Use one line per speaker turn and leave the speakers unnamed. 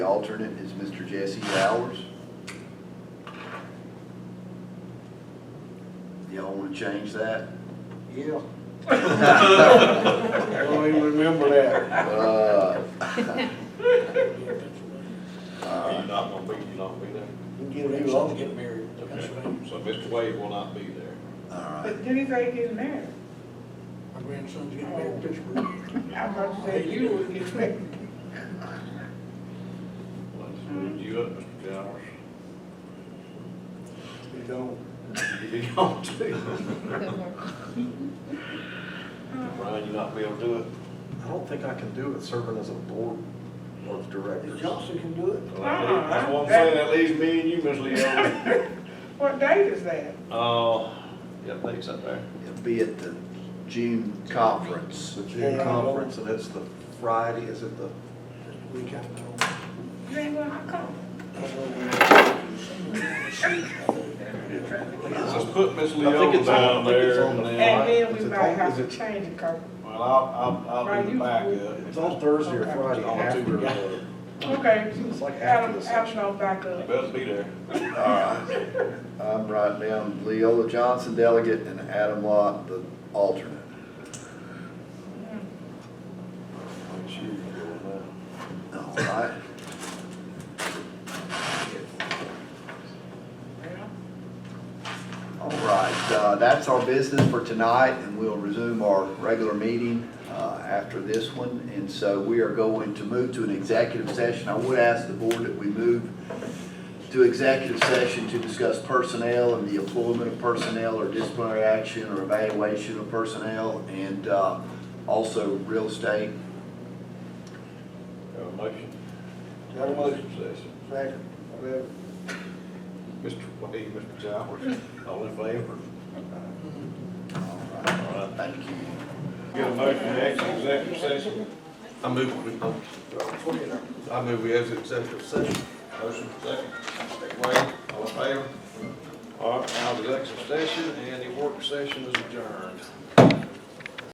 The alternate is Mr. Jesse Bowers. Y'all want to change that?
Yeah. I don't even remember that.
Uh,
Are you not gonna be, you not gonna be there?
Get a new office.
Get married, Pennsylvania.
So Mr. Wade will not be there.
All right.
But Dewey Gray getting married.
My grandson's getting married, Pittsburgh.
I was about to say, you would get married.
Let's move you up, Mr. Towers.
You don't.
You don't do. Brian, you not be able to do it?
I don't think I can do it serving as a board of
If
directors.
Johnson can do it.
Uh-uh.
That's what I'm saying, that leaves me and you, Ms. Leo.
What date is that?
Uh, yeah, thanks up there.
It'll be at the June conference.
The June conference, and it's the Friday, is it the,
We kind of know.
You ain't gonna come.
Let's put Ms.
I think
Leo
it's on-
down
I think it's
there.
on the-
and
And
then-
then we
Is it
might
on-
have
is
to
it-
change it, cause,
Well, I'll, I'll, I'll do the
it's
backup.
on Thursday or Friday
I'll
after.
do the-
the-
okay.
It's like after
Adam,
the
Adam,
session.
no backup.
Best be there.
All right. I'm writing down Leola Johnson delegate and Adam Lot the alternate. All right. All right, uh, that's our business for tonight, and we'll resume our regular meeting uh, after this one. And so we are going to move to an executive session. I would ask the board that we move to executive session to discuss personnel and the employment of personnel or disciplinary action or evaluation of personnel, and uh, also real estate.
Have a motion.
Got a motion.
Session.
Second, whatever.
Mr. Wade, Mr. Towers, all in favor?
All right, Thank you.
Get a motion to exit executive session.
I move, we- oh, I move we exit executive session.
Motion second. Mr. Wade, all in favor? All right, now the executive session and the work session is adjourned.